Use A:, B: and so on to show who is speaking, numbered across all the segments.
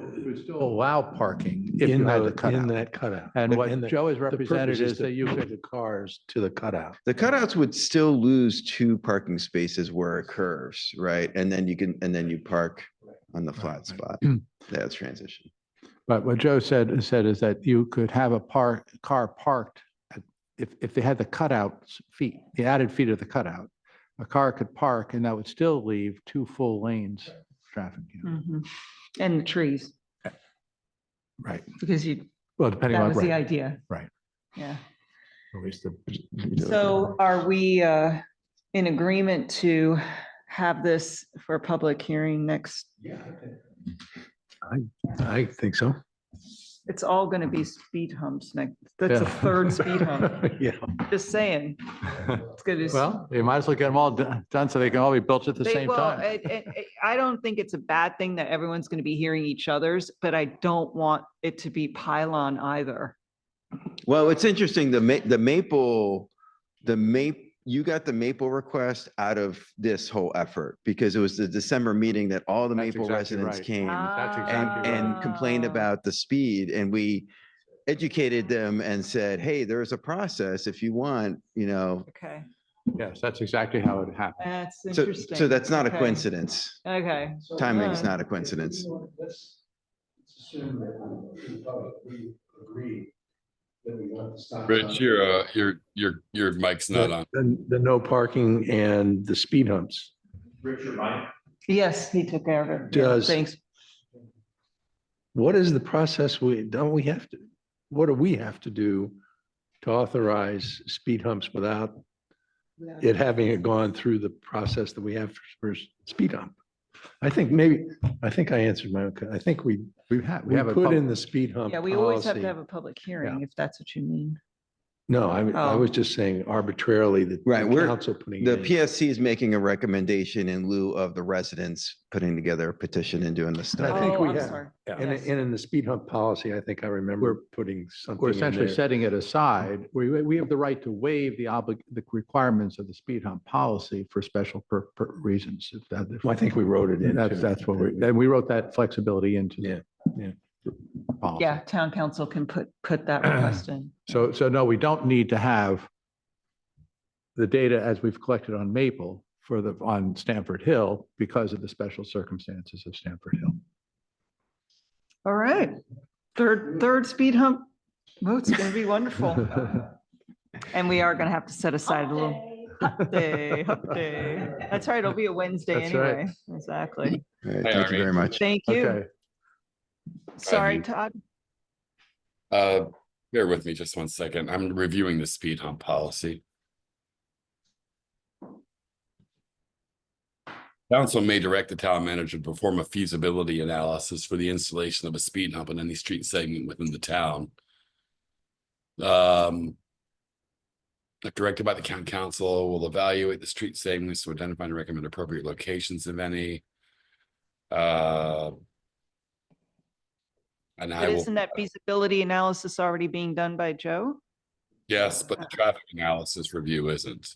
A: would still allow parking in the
B: the- In
A: cutout.
B: that cutout.
A: And
B: But-
A: what
B: the-
A: Joe has
B: the purpose
A: represented is
B: to
A: that you
B: move
A: could,
B: The cars to the cutout.
C: The cutouts would still lose two parking spaces where it curves, right? And then you can, and then you park on the flat
A: right.
C: spot. That's transition.
A: but what Joe said, said is that you could have a park, car parked at- if, if they had the cutouts feet, the added feet of the cutout, a car could park and that would still leave two full lanes of traffic. you know.
D: Mhm. And the trees,
A: Right.
D: because you,
A: Well, depending
D: that
A: on,
D: was the
A: right,
D: idea.
A: right.
D: Yeah.
A: at least the-
D: So are we uh, in agreement to have this for a public hearing next?
B: I think so.
D: It's all going to be speed humps next. That's the
A: Mm-hmm. Yeah.
D: third speed hump.
B: Yeah.
D: Just saying. It's going to.
A: Well, you might as well get them all do- done so they can all be built at the same
D: eh.
A: time.
D: I don't think it's a bad thing that everyone's going to be hearing each other's, but I don't want it to be pylon either.
C: Well, it's interesting, the ma- the maple, the maple, you got the maple request out of this whole effort because it was the December meeting that all the
A: That's
C: maple
A: exactly
C: residents
A: right.
C: came
A: That's
C: and,
A: exactly
C: and complained
D: Ah.
C: about the speed and we educated them and said, hey, there's a process if you want, you know.
D: Okay,
A: Yes, that's exactly how it happened.
D: that's
C: So,
D: interesting.
C: so that's not a
D: Okay.
C: coincidence.
D: Okay,
C: Timing's
D: uh,
C: not a coincidence.
E: Let's let's assume that we, in public, we agree that we want the stop.
F: Rich,
E: sign.
F: your, uh, your, your, your mic's not on.
B: The, the no parking and the speed humps.
E: Richard, mine.
D: yes, he took care of it. Yeah,
B: Does-
D: Thanks.
B: What is the process? We, don't we have to, what do we have to do to authorize speed humps without it having it gone through the process that we have for, for speed hump? I think maybe, I think I answered my, own que- I think we,
A: We've had, we
B: we
A: have a.
B: put
A: pub-
B: in the speed hump
D: Yeah, we always have to
B: policy.
D: have a public hearing if that's what you mean.
B: No, I, I
D: Oh.
B: was just saying arbitrarily that. the
C: Right, we're-
B: Council putting.
C: The
B: it in.
C: PSC is making a recommendation in lieu of the residents putting together a petition and doing this
B: I
C: stuff.
B: think
D: Oh,
B: we
D: I'm
B: have.
D: sorry.
A: Yeah.
B: And,
D: Yes.
B: and in the speed hump policy, I think I remember putting something.
A: We're
B: in
A: essentially
B: there.
A: setting it aside. We, we have the right to waive the oblig, the requirements of the speed hump policy for special per, per reasons. if that- if-
B: Well, I think we wrote it in.
A: That's, that's what we, and we wrote that flexibility into. the
B: Yeah,
A: policy.
D: Yeah, town council can put, put that request in.
A: So, so no, we don't need to have the data as we've collected on Maple for the, on Stanford Hill because of the special circumstances of Stanford Hill.
D: All right, third, third speed hump. Well, it's going to be wonderful. And we are going to have to set aside a little. Hump day, hump day. That's right, it'll be a Wednesday
A: That's right.
D: anyway. Exactly.
C: All right,
F: Hi,
C: Thank you
F: Arnie.
C: very much.
D: Thank you.
A: Okay,
D: Sorry,
F: Um,
D: Todd.
F: Uh, bear with me just one second. I'm reviewing the speed hump policy. Council may direct the town manager to perform a feasibility analysis for the installation of a speed hump in any street segment within the town. Um. if Directed by the county council will evaluate the street segments to identify and recommend appropriate locations if any. Uh. And I
D: But
F: will. uh,
D: isn't that feasibility analysis already being done by Joe?
F: Yes, but the traffic analysis review isn't.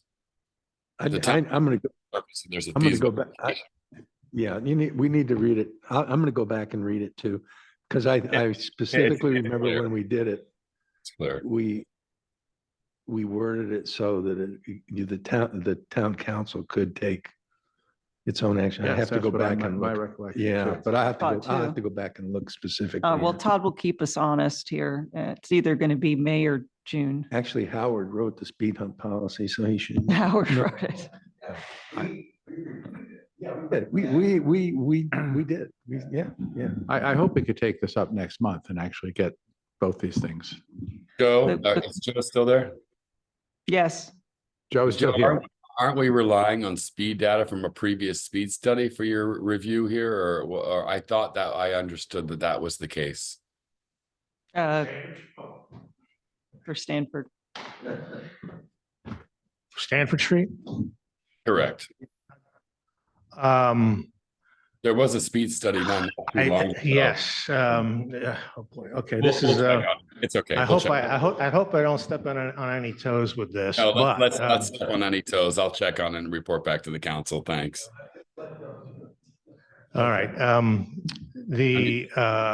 B: I,
F: The
B: I-
F: time-
B: I'm gonna, go.
F: Obviously, There's a
B: I'm gonna go
F: feasible-
B: back. I- Yeah, you need, we need to read it. I, I'm gonna go back and read it too. Cause I, I specifically
F: it's
B: remember
F: there.
B: when we did it,
F: it's clear.
B: we, we worded it so that it, the town, the town council could take its own action. I
A: yes,
B: have to
A: that's
B: go
A: what I
B: back
A: meant,
B: and
A: My
B: look.
A: recollection.
B: Yeah,
A: too.
B: but I have to,
D: Thought
B: go- I
D: too.
B: have to go back and look specifically.
D: Uh, well,
B: here.
D: Todd will keep us honest here. Uh, It's either going to be May or June.
B: Actually, Howard wrote the speed hump policy, so he should.
D: Howard
B: No.
D: wrote it.
E: We- we- Yeah. we-
B: Yeah, We, we, we, we, we did. We, yeah, yeah.
A: I, I hope we could take this up next month and actually get both these things.
F: Joe,
D: The-
F: uh,
D: the-
F: is Joe still there?
D: Yes,
A: Joe is still
F: Joe,
A: here.
F: aren't- Aren't we relying on speed data from a previous speed study for your review here? Or, or I thought that I understood that that was the case.
D: uh, for Stanford.
G: Stanford Street.
F: Correct.
G: Um,
F: There was a speed study done. not too
G: I-
F: long ago.
G: yes, um, uh, oh boy, okay,
F: We'll-
G: this
F: we'll
G: is,
F: check
G: uh,
F: on it. It's okay.
G: I
F: we'll
G: hope
F: check on
G: I, I
F: it.
G: hope, I hope I don't step on, on any toes with this,
F: No,
G: but.
F: let's, let's-
G: um,
F: let's step on any toes. I'll check on it and report back to the council. Thanks.
G: All right, um, the, uh,